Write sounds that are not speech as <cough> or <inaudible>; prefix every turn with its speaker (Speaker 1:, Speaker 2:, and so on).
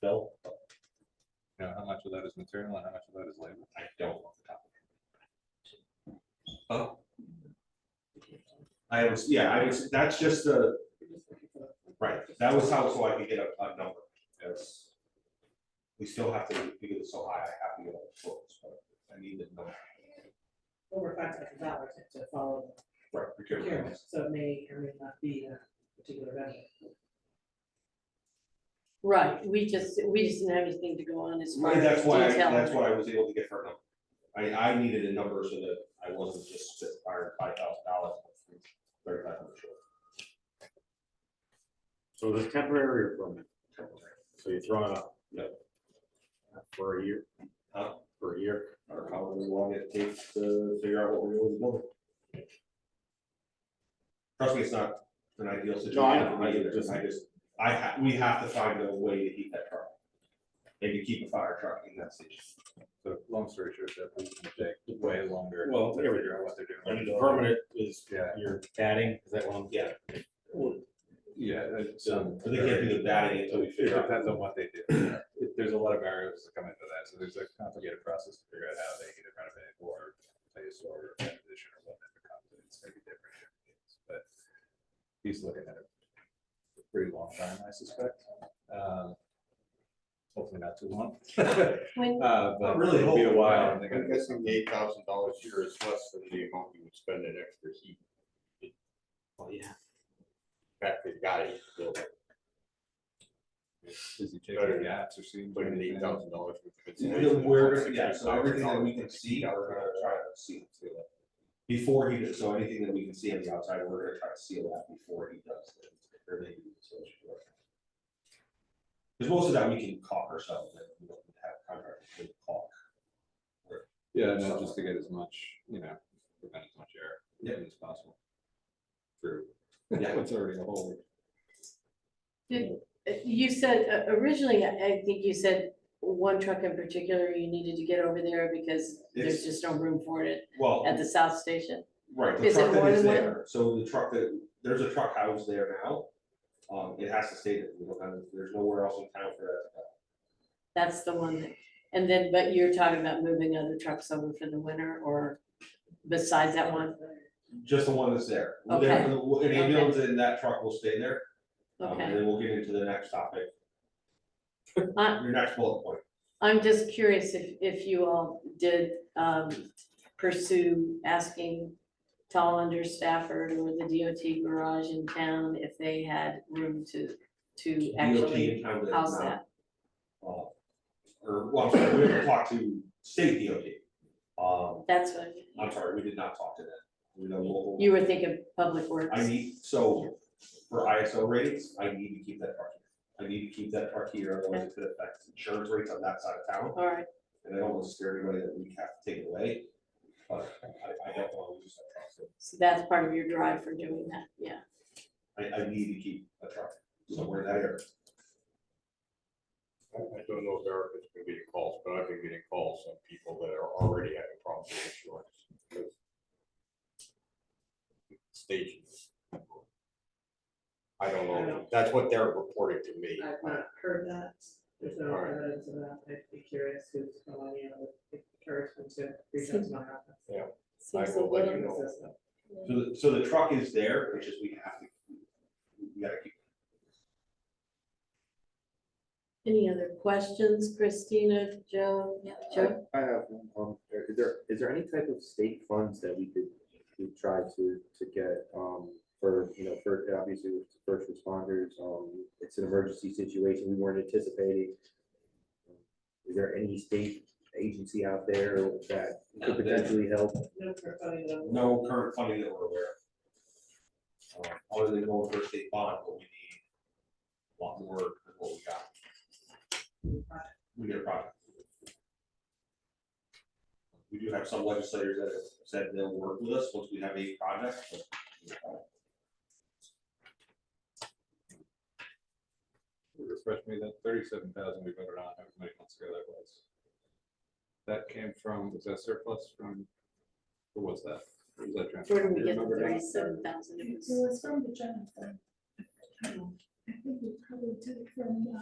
Speaker 1: Bill?
Speaker 2: You know, how much of that is material and how much of that is labor?
Speaker 1: I don't. off the top of my head. I was, yeah, I was, that's just the, right, that was how, so I could get a, a number, because we still have to, figure this so high, I have to get all the quotes, but I need the number.
Speaker 3: over five thousand dollars to follow
Speaker 1: Right,
Speaker 3: the procurement,
Speaker 1: procurement.
Speaker 3: so it may or may not be a particular vendor.
Speaker 4: Right, we just, we just didn't have anything to go on as far
Speaker 1: Right,
Speaker 4: as
Speaker 1: that's why, I- that's
Speaker 4: detail.
Speaker 1: why I was able to get her number. I, I needed a number so that I wasn't just fired five thousand dollars, thirty-five hundred short.
Speaker 5: So this temporary or permanent,
Speaker 1: temporary.
Speaker 5: so you throw it up.
Speaker 1: Yep.
Speaker 5: For a year,
Speaker 1: Huh?
Speaker 5: for a year,
Speaker 1: Or however long it takes to figure out what we're going to do. Trust me, it's not an ideal situation.
Speaker 5: No, I know.
Speaker 1: for me either, 'cause I just, I ha, we have to find a way to heat that truck. Maybe keep a fire truck in that station.
Speaker 2: So long story short, that we can take way longer.
Speaker 5: Well,
Speaker 2: To
Speaker 5: there we
Speaker 2: figure out what they're
Speaker 5: and the
Speaker 2: doing.
Speaker 5: permanent is,
Speaker 2: Yeah.
Speaker 5: you're adding, is that one?
Speaker 1: Yeah.
Speaker 2: Yeah, it's, um.
Speaker 1: So they can't do the batting until we
Speaker 2: It
Speaker 1: figure out.
Speaker 2: depends on what they do. It- There's a lot of variables that come into that, so there's a complicated process to figure out how they either renovate or place or transition or what it becomes, and it's gonna be different. in different cases, But he's looking at it for a pretty long time, I suspect. Um, Hopefully not too long. <laughs>
Speaker 4: When-
Speaker 2: Uh,
Speaker 1: Not
Speaker 2: but
Speaker 1: really
Speaker 2: it'll be
Speaker 1: hope.
Speaker 2: a while. and they're
Speaker 6: I'm
Speaker 2: gonna-
Speaker 6: guessing the eight thousand dollars here is less than the amount you would spend in extra heat.
Speaker 5: Oh, yeah.
Speaker 6: Back to the guy, so
Speaker 2: Is he taking gaps or seeing?
Speaker 6: putting in eight thousand dollars.
Speaker 1: We're, gonna- yeah, so everything that we can see, we're gonna try to see seal it. Before he, does- so anything that we can see on the outside, we're gonna try to seal that before he does it. or they do this, so it's short. Cause most of that we can caulk ourselves, like we don't have contractors to caulk.
Speaker 2: Yeah, no, just to get as much, you know, prevent as much error
Speaker 1: Yeah.
Speaker 2: as possible. Through. <laughs>
Speaker 1: Yeah.
Speaker 2: It's already a hole.
Speaker 4: You said, uh, originally, I I think you said one truck in particular you needed to get over there because
Speaker 1: It's-
Speaker 4: there's just no room for it <laughs>
Speaker 1: Well,
Speaker 4: at the south station.
Speaker 1: right, the
Speaker 4: is it
Speaker 1: truck that
Speaker 4: more
Speaker 1: is
Speaker 4: than one?
Speaker 1: there, so the truck that, there's a truck house there now. Um, it has to stay there, we don't have, there's nowhere else in town for that. to go.
Speaker 4: That's the one that, and then, but you're talking about moving other trucks over for the winter or besides that one?
Speaker 1: Just the one that's there. There- An ambulance in that truck will stay there. Um,
Speaker 4: Okay.
Speaker 1: And then we'll get into the next topic,
Speaker 4: I,
Speaker 1: your next bullet point.
Speaker 4: I'm just curious if, if you all did, um, pursue asking Tollander, Stafford, or the DOT garage in town if they had room to, to
Speaker 1: DOT
Speaker 4: actually
Speaker 1: in town does
Speaker 4: house
Speaker 1: not,
Speaker 4: that.
Speaker 1: uh, Or, well, I'm sorry, we haven't talked to state DOT. Um,
Speaker 4: That's what,
Speaker 1: I'm sorry, we did not talk to them. We know local-
Speaker 4: you were thinking public works.
Speaker 1: I need, so for ISO ratings, I need to keep that truck. here. I need to keep that truck here, otherwise it could affect insurance rates on that side of town.
Speaker 4: All right,
Speaker 1: And I don't want to scare anybody that we have to take it away. But I, I don't want to lose that truck. so
Speaker 4: so that's part of your drive for doing that, yeah.
Speaker 1: I, I need to keep a truck somewhere in that area.
Speaker 6: I I don't know if Eric is gonna be getting calls, but I've been getting calls on people that are already having problems with insurance. because Stations. I don't know, that's what they're reporting to me.
Speaker 3: I've not heard that, there's no
Speaker 6: Alright.
Speaker 3: evidence of that, I'd be curious who's calling you, I would encourage them to reach out to my office.
Speaker 4: Seems a
Speaker 6: will let you
Speaker 4: little-
Speaker 6: know.
Speaker 3: This is the-
Speaker 1: So, the- so the truck is there, which is we have to, we gotta keep.
Speaker 4: Any other questions, Christina, Joe?
Speaker 7: I
Speaker 4: Joe?
Speaker 7: I have, one, um, is there, is there any type of state funds that we could, we try to, to get, um, for, you know, for, obviously, with the first responders, um, it's an emergency situation we weren't anticipating. Is there any state agency out there that could potentially help?
Speaker 3: No, for funny though.
Speaker 1: No current funding that we're aware of. Um, Other than going for a state bond, but we need a lot more than what we got. We get a project. We do have some legislators that have said they'll work with us once we have a project. but we don't have it.
Speaker 2: Refresh me, that thirty-seven thousand we voted on, how many months ago that was? That came from, was that surplus from, or was that? Or was that transfer?
Speaker 4: Where do we
Speaker 2: Do you
Speaker 4: get the
Speaker 2: remember that?
Speaker 4: thirty-seven thousand?
Speaker 8: It was from the general fund. I think we probably took it from, uh,